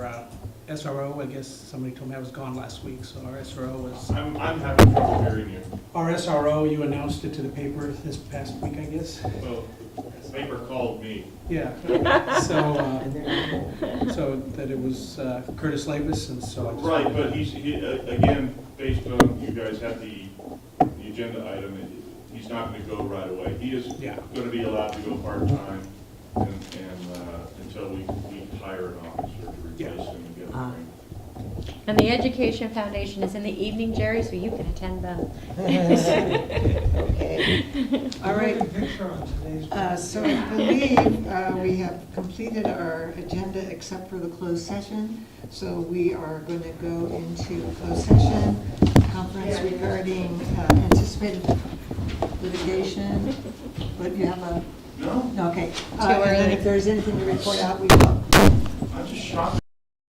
SRO, I guess somebody told me I was gone last week, so our SRO was, I'm, I'm having trouble hearing you. our SRO, you announced it to the paper this past week, I guess. Well, the paper called me. Yeah, so, uh, so that it was uh, Curtis Lavis, and so I just. Right, but he's, he, a- again, based on, you guys had the, the agenda item, it- he's not gonna go right away. He is Yeah. gonna be allowed to go part-time and, and, uh, until we, we hire an officer to replace him and get him trained. And the Education Foundation is in the evening, Jerry, so you can attend them. All right. Uh, So I believe uh, we have completed our agenda except for the closed session. So we are going to go into closed session, conference regarding uh, anticipated litigation. But you have a, No, no, okay. Uh, Too And then early. if there's anything to report out, we will. I'm just shocked